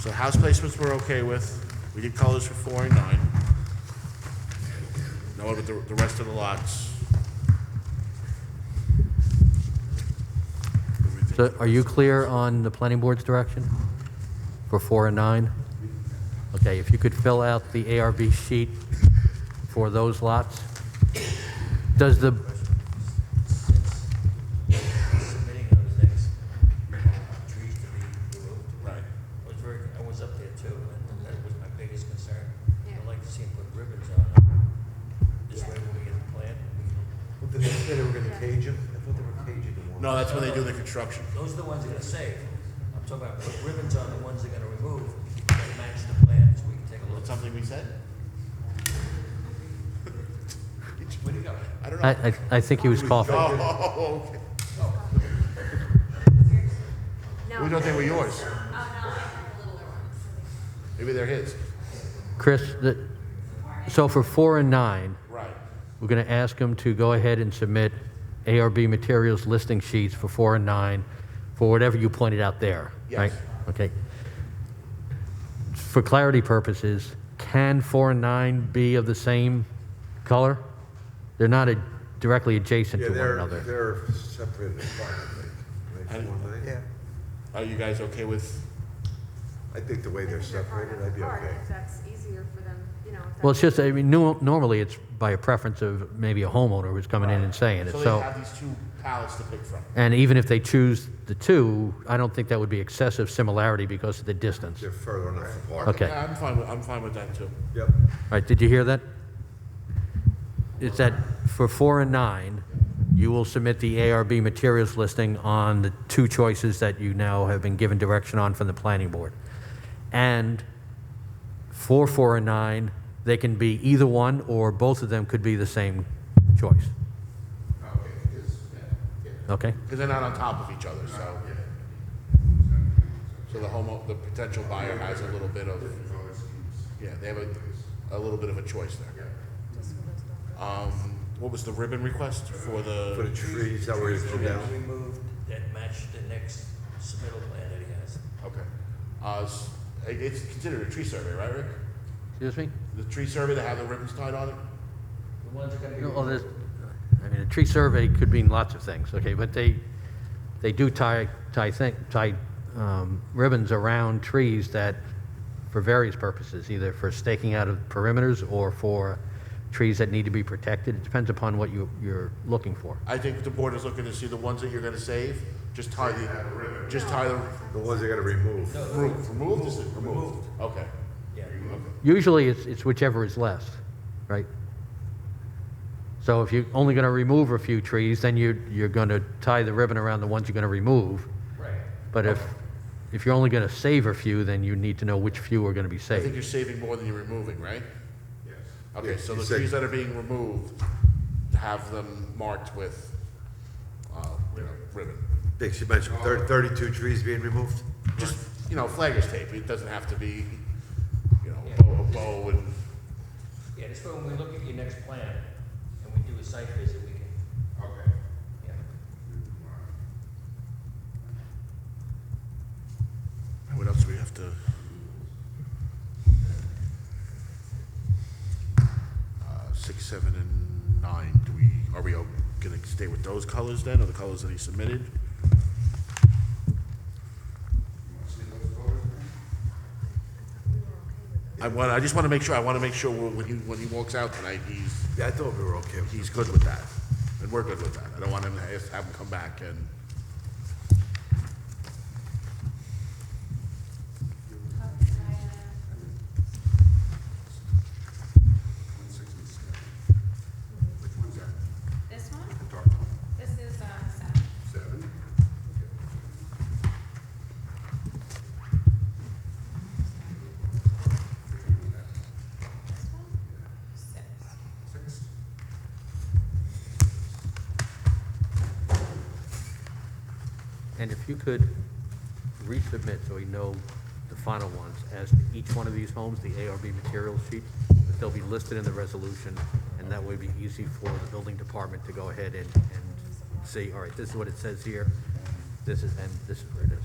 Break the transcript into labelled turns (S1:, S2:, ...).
S1: So house placements we're okay with. We did colors for four and nine. Now what about the, the rest of the lots?
S2: So are you clear on the planning board's direction for four and nine? Okay, if you could fill out the ARB sheet for those lots. Does the,
S3: submitting those things, you know, trees to be removed.
S1: Right.
S3: I was very, I was up there too, and that was my biggest concern.
S4: Yeah.
S3: I'd like to see them put ribbons on it. This way when we get a plan, we can-
S5: But they said they were gonna cage him? I thought they were caging him.
S1: No, that's when they do the construction.
S3: those are the ones that are safe. I'm talking about put ribbons on the ones they're gonna remove that match the plan, so we can take a look.
S1: That's something we said?
S3: Where do you go?
S1: I don't
S2: I,
S1: know.
S2: I, I think he was coughing.
S1: Oh, okay.
S4: No.
S1: We don't think we're yours.
S4: Oh, no, I have the littler ones.
S1: Maybe they're his.
S2: Chris, the, so for four and nine,
S1: Right.
S2: we're going to ask them to go ahead and submit ARB materials listing sheets for four and nine for whatever you pointed out there, right?
S1: Yes.
S2: Okay. For clarity purposes, can four and nine be of the same color? They're not a- directly adjacent
S5: Yeah,
S2: to one
S5: they're,
S2: another.
S5: they're separated apart, I think.
S1: I
S5: Right,
S1: didn't-
S5: four and nine?
S1: Are you guys okay with,
S5: I think the way
S4: I
S5: they're
S4: think they're far
S5: separated,
S4: enough
S5: I'd be
S4: apart,
S5: okay.
S4: if that's easier for them, you know. if
S2: Well,
S4: that's-
S2: it's just, I mean, nu- normally it's by a preference of maybe a homeowner who's coming in and saying it,
S1: so they
S2: so.
S1: have these two pallets to pick from?
S2: And even if they choose the two, I don't think that would be excessive similarity because of the distance.
S5: They're further enough apart.
S2: Okay.
S1: Yeah, I'm fine, with- I'm fine with that too.
S5: Yep.
S2: All right, did you hear that? It's that for four and nine, you will submit the ARB materials listing on the two choices that you now have been given direction on from the planning board. And for four and nine, they can be either one or both of them could be the same choice. Okay,
S1: Because they're not on top of each other, so. So the home, the potential buyer has a little bit of, yeah, they have a, a little bit of a choice there. Um, what was the ribbon request for
S5: For the
S1: the,
S5: trees that were
S3: So
S5: injured
S3: that
S5: down.
S3: removed, that match the next submittal plan that he has.
S1: okay. Uh, s- it- it's considered a tree survey, right, Rick?
S2: excuse me?
S1: The tree survey that had the ribbons tied on it?
S3: The ones that are gonna be.
S2: Well, there's, I mean, a tree survey could mean lots of things, okay, but they, they do tie, tie thing, tie um, ribbons around trees that, for various purposes, either for staking out of perimeters or for trees that need to be protected. It depends upon what you, you're looking for.
S1: I think the board is looking to see the ones that you're gonna save, just tie the, just tie the,
S5: The ones they gotta remove.
S1: remove, removed, is it removed? Okay.
S3: Yeah.
S2: Usually, it's, it's whichever is less, right? So if you're only gonna remove a few trees, then you, you're gonna tie the ribbon around the ones you're gonna remove.
S3: Right.
S2: But if, if you're only going to save a few, then you need to know which few are going to be
S1: I think
S2: saved.
S1: you're saving more than you're removing, right? Yes. Okay,
S5: Yeah,
S1: so
S5: you
S1: the
S5: say-
S1: trees that are being removed, have them marked with, uh, you know, ribbon.
S5: Dick, she mentioned thir- thirty-two trees being removed?
S1: Just, you know, flaggers tape, it doesn't have to be, you know, a bow, a bow and,
S3: Yeah, this way when we look at your next plan and we do a site visit, we can. Okay.
S1: what else do we have to? Uh, Six, seven, and nine, do we, are we all gonna stay with those colors then, or the colors that he submitted? I want, I just wanna make sure, I wanna make sure when he, when he walks out tonight, he's
S5: Yeah, I thought we were okay. with-
S1: he's good with that, and we're good with that. I don't want him to have have him come back and.
S6: This one? This is, uh, seven. This one? Six.
S2: And if you could resubmit so we know the final ones as to each one of these homes, the ARB material sheet, but they'll be listed in the resolution, and that would be easy for the building department to go ahead and, and see, all right, this is what it says here, this is, and this is where it is.